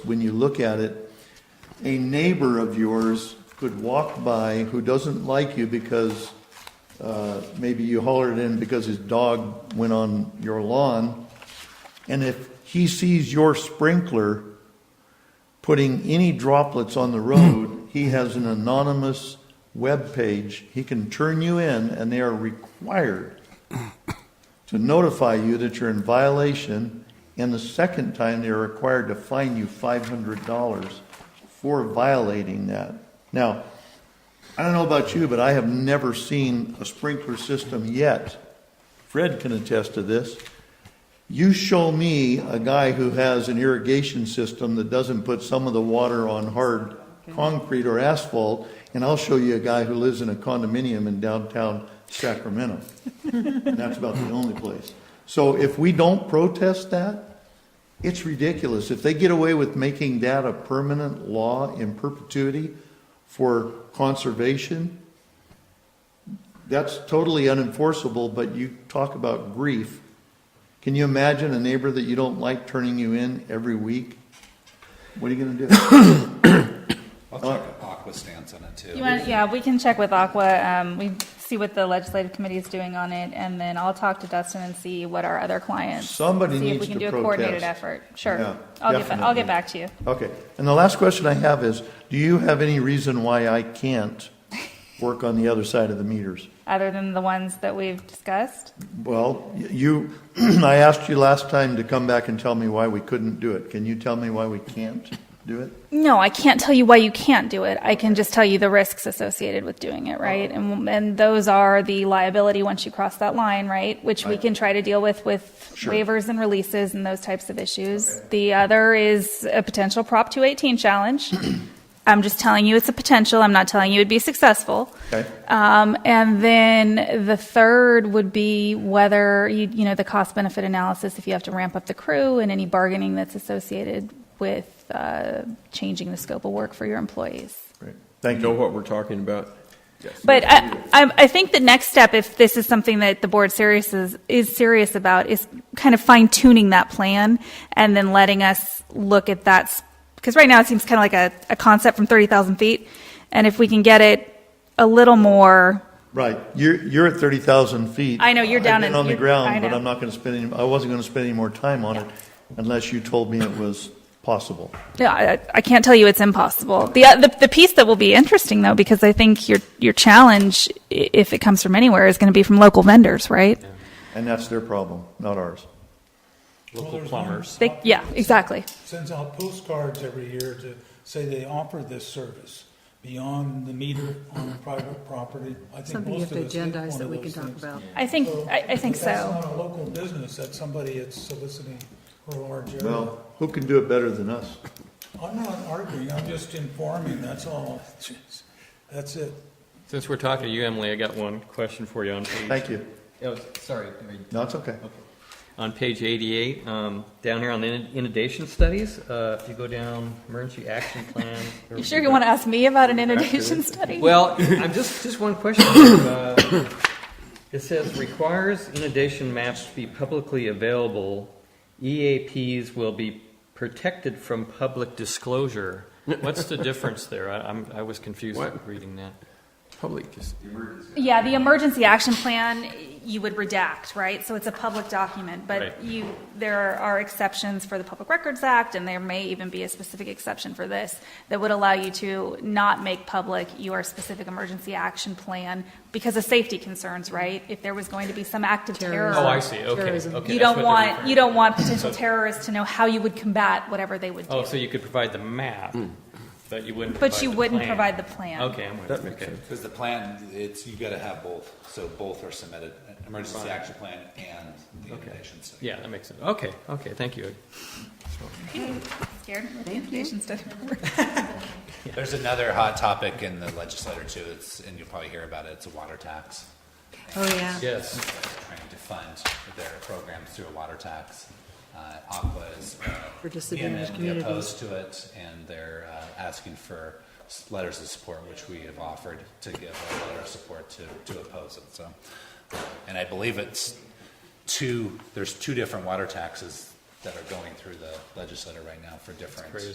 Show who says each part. Speaker 1: when you look at it, a neighbor of yours could walk by who doesn't like you because uh, maybe you hollered in because his dog went on your lawn, and if he sees your sprinkler putting any droplets on the road, he has an anonymous web page. He can turn you in, and they are required to notify you that you're in violation, and the second time they're required to fine you $500 for violating that. Now, I don't know about you, but I have never seen a sprinkler system yet. Fred can attest to this. You show me a guy who has an irrigation system that doesn't put some of the water on hard concrete or asphalt, and I'll show you a guy who lives in a condominium in downtown Sacramento. And that's about the only place. So if we don't protest that, it's ridiculous. If they get away with making that a permanent law in perpetuity for conservation, that's totally unenforceable, but you talk about grief. Can you imagine a neighbor that you don't like turning you in every week? What are you gonna do?
Speaker 2: I'll check if Aqua stance on it too.
Speaker 3: You want, yeah, we can check with Aqua, um, we see what the legislative committee is doing on it, and then I'll talk to Dustin and see what our other clients.
Speaker 1: Somebody
Speaker 3: See if
Speaker 1: needs
Speaker 3: we can
Speaker 1: to
Speaker 3: do a coordinated
Speaker 1: protest.
Speaker 3: effort, sure.
Speaker 1: Yeah,
Speaker 3: I'll get, ba- I'll
Speaker 1: definitely.
Speaker 3: get back to you.
Speaker 1: Okay, and the last question I have is, do you have any reason why I can't work on the other side of the meters?
Speaker 3: Other than the ones that we've discussed,
Speaker 1: Well, you, I asked you last time to come back and tell me why we couldn't do it. Can you tell me why we can't do it?
Speaker 3: no, I can't tell you why you can't do it. I can just tell you the risks associated with doing it, right?
Speaker 1: Uh-huh.
Speaker 3: And, and those are the liability once you cross that line, right? Which we
Speaker 1: Right.
Speaker 3: can try to deal with with
Speaker 1: Sure.
Speaker 3: waivers and releases and those types of issues. The other is a potential Prop 218 challenge. I'm just telling you it's a potential. I'm not telling you it'd be successful.
Speaker 1: Okay.
Speaker 3: Um, and then the third would be whether you, you know, the cost benefit analysis, if you have to ramp up the crew and any bargaining that's associated with, uh, changing the scope of work for your employees.
Speaker 1: Great. Thank
Speaker 4: know
Speaker 1: you.
Speaker 4: what we're talking about.
Speaker 3: But I, I, I think the next step, if this is something that the board serious is, is serious about, is kind of fine tuning that plan and then letting us look at that. Because right now it seems kind of like a, a concept from 30,000 feet. And if we can get it a little more,
Speaker 1: Right, you're, you're at 30,000 feet.
Speaker 3: I know, you're
Speaker 1: I've
Speaker 3: down
Speaker 1: been
Speaker 3: in-
Speaker 1: on the
Speaker 3: you're- I
Speaker 1: ground, but
Speaker 3: know.
Speaker 1: I'm not going to spend, any I wasn't going to spend any more time on it unless you told me it was possible.
Speaker 3: Yeah, I, I can't tell you it's impossible. The, uh, the the piece that will be interesting though, because I think your your challenge, i- if it comes from anywhere, is going to be from local vendors, right?
Speaker 1: And that's their problem, not ours.
Speaker 5: Local plumbers.
Speaker 3: They, yeah, exactly.
Speaker 5: Sends out postcards every year to say they offer this service beyond the meter on private property. I think
Speaker 6: Something you
Speaker 5: most
Speaker 6: have
Speaker 5: of
Speaker 6: to
Speaker 5: us did
Speaker 6: agendize
Speaker 5: one
Speaker 6: that
Speaker 5: of
Speaker 6: we can
Speaker 5: those
Speaker 6: talk
Speaker 5: things.
Speaker 6: about.
Speaker 3: I think I, I think
Speaker 5: That's
Speaker 3: so.
Speaker 5: not a local business, that's somebody that's soliciting for a large area.
Speaker 1: Well, who can do it better than us?
Speaker 5: I'm not arguing, I'm just informing, that's all. Jeez. That's it.
Speaker 7: Since we're talking to you, Emily, I got one question for you on page.
Speaker 1: Thank you.
Speaker 7: Oh, sorry. I mean,
Speaker 1: No, it's okay.
Speaker 7: On page 88, um, down here on in- inundation studies, uh, if you go down emergency action plan.
Speaker 3: You sure you want to ask me about an inundation study?
Speaker 7: Well, I'm just, just one question. Uh, It says requires inundation maps to be publicly available. EAPs will be protected from public disclosure. What's the difference there? I, I'm, I was confused
Speaker 4: What?
Speaker 7: reading that.
Speaker 4: Public is
Speaker 3: yeah, the emergency action plan you would redact, right? So it's a public document, but
Speaker 7: Right.
Speaker 3: you there are exceptions for the Public Records Act, and there may even be a specific exception for this that would allow you to not make public your specific emergency action plan because of safety concerns, right? If there was going to be some act of terror,
Speaker 7: Oh, I see. Okay.
Speaker 6: Terrorism.
Speaker 7: okay,
Speaker 3: you
Speaker 7: that's
Speaker 3: don't
Speaker 7: what they're
Speaker 3: want
Speaker 7: referring
Speaker 3: you don't
Speaker 7: to.
Speaker 3: want potential terrorists to know how you would combat whatever they would do,
Speaker 7: Oh, so you could provide the map,
Speaker 4: Hmm.
Speaker 7: but you wouldn't.
Speaker 3: but
Speaker 7: provide
Speaker 3: you
Speaker 7: the
Speaker 3: wouldn't
Speaker 7: plan.
Speaker 3: provide the plan.
Speaker 7: Okay, I'm with you.
Speaker 4: That makes
Speaker 7: Okay.
Speaker 4: sense.
Speaker 2: Because the plan, it's, you gotta have both, so both are submitted, uh, emergency action plan and the inundation study.
Speaker 7: Yeah, that makes sense. Okay, okay, thank you.
Speaker 3: Scared with the inundation study.
Speaker 2: There's another hot topic in the legislature too, it's, and you'll probably hear about it, it's a water tax.
Speaker 6: Oh, yeah.
Speaker 7: Yes.
Speaker 2: Trying to fund their programs through a water tax. Uh, Aqua is uh,
Speaker 6: For disadvantaged
Speaker 2: vehemently
Speaker 6: communities.
Speaker 2: opposed to it, and they're uh, asking for s- letters of support, which we have offered to give a letter of support to, to oppose it, so. And I believe it's two, there's two different water taxes that are going through the legislature right now for different